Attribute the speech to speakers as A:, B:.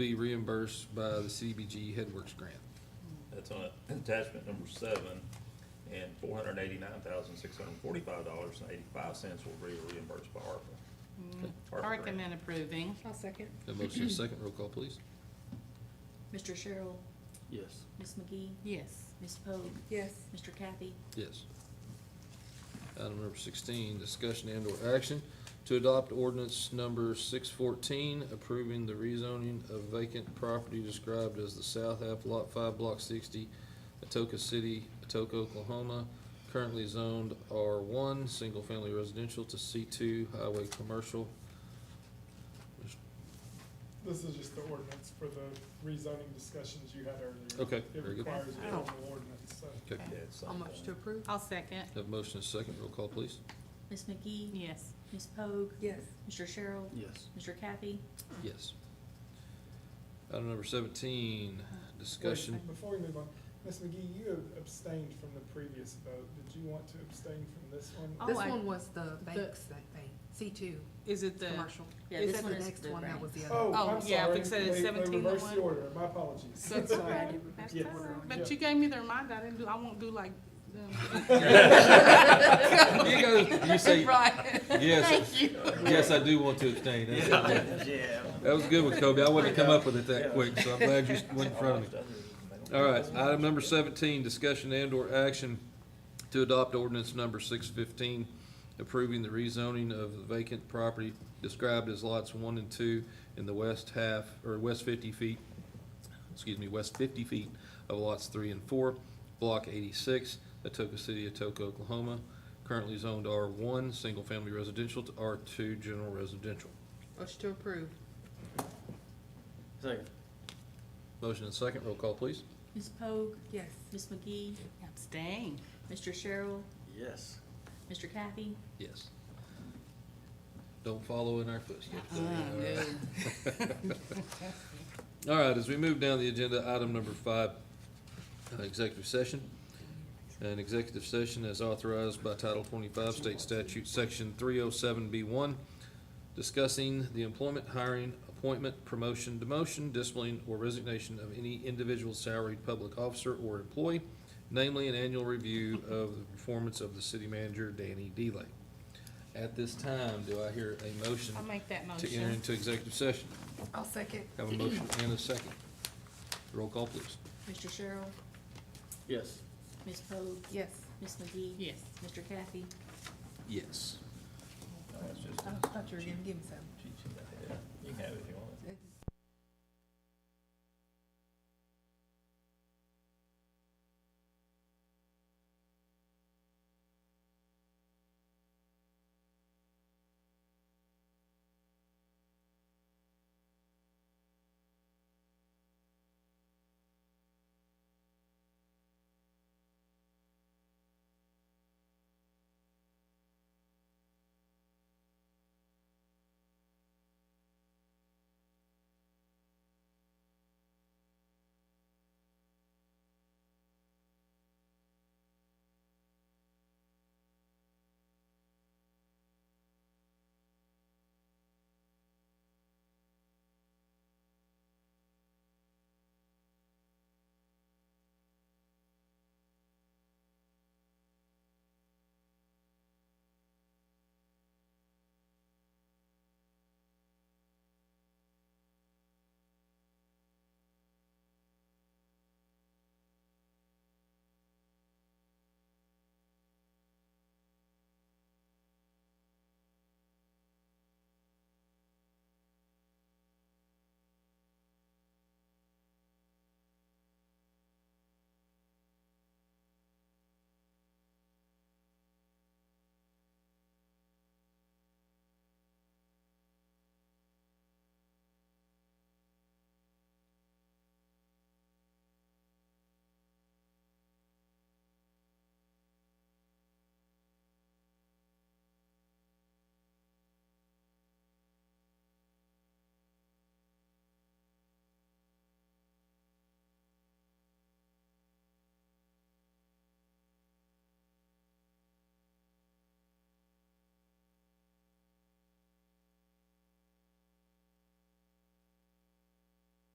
A: be reimbursed by the CDBG HeadWorks grant.
B: That's on attachment number seven, and four hundred eighty-nine thousand, six hundred forty-five dollars and eighty-five cents will be reimbursed by ARPA. ARPA
C: I
B: grant.
C: recommend approving.
D: I'll second.
A: Got a motion and a second, roll call please.
E: Mr. Cheryl,
F: Yes.
E: Ms. McGee,
C: Yes.
E: Ms. Pogue,
D: Yes,
E: Mr. Kathy,
A: Yes. Item number sixteen, discussion and or action to adopt ordinance number six fourteen, approving the rezoning of vacant property described as the South Half Lot Five Block sixty, Atoka City, Atoka, Oklahoma, currently zoned R one, single family residential to C two, highway commercial.
G: This is just the ordinance for the rezoning discussions you had earlier.
A: Okay,
G: It
A: very good.
G: requires a formal ordinance, so.
A: Okay,
B: Yeah, it's
C: How
B: something.
C: approve? I'll second.
A: have a motion and a second, roll call please.
E: Ms. McGee,
C: Yes.
E: Ms. Pogue,
D: yes,
E: Mr. Cheryl,
F: Yes.
E: Mr. Kathy,
A: Yes. Item number seventeen, discussion.
G: Wait, Before we move on, Ms. McGee, you abstained from the previous vote. Did you want to abstain from this one?
C: Oh,
H: This
C: I-
H: one was the banks, I think, C two,
C: Is it the,
H: commercial.
E: Yeah,
H: Is
E: this
H: that
E: one
H: the
E: is
H: next
E: the
H: one? That
E: bank.
H: was the
G: Oh,
H: other.
C: Oh,
G: I'm
C: yeah, I
G: sorry.
C: think so. It's
G: They-
C: 17 to
G: They reversed
C: one.
G: the order, my apologies.
C: That's all right. That's
G: Yes.
C: all right.
G: Yeah.
C: but you gave me the reminder, I didn't do, I won't do like um, them.
A: You go, you say,
C: Right.
A: yes, yes, I do want to abstain. That's- That was a good one, Kobe. I wouldn't have come up with it that quick, so I'm glad you went in front of me. All right, item number seventeen, discussion and or action to adopt ordinance number six fifteen, approving the rezoning of the vacant property described as lots one and two in the west half, or west fifty feet, excuse me, west fifty feet of lots three and four, block eighty-six, Atoka City, Atoka, Oklahoma, currently zoned R one, single-family residential to R two, general residential.
H: Motion to approve.
F: Second.
A: Motion and second, roll call, please.
E: Ms. Pogue,
H: Yes.
E: Ms. McGee,
C: Abstain.
E: Mr. Cheryl,
F: Yes.
E: Mr. Kathy,
A: Yes. Don't follow in our footsteps. Debbie, All right, All right, as we move down the agenda, item number five, uh, executive session. An executive session as authorized by Title twenty-five State Statute, Section three oh seven B one, discussing the employment, hiring, appointment, promotion, demotion, discipline, or resignation of any individual salaried public officer or employee, namely an annual review of the performance of the city manager, Danny Delay. At this time, do I hear a motion
C: I'll make that
A: to enter
C: motion.
A: into executive session?
H: I'll second.
A: Have a motion and a second. Roll call, please.
E: Mr. Cheryl,
F: Yes.
E: Ms. Pogue,
H: Yes.
E: Ms. McGee.
C: Yes.
E: Mr. Kathy,
A: Yes.
B: No, it's just-
H: I thought you were gonna give me some.
B: You can have it if you want.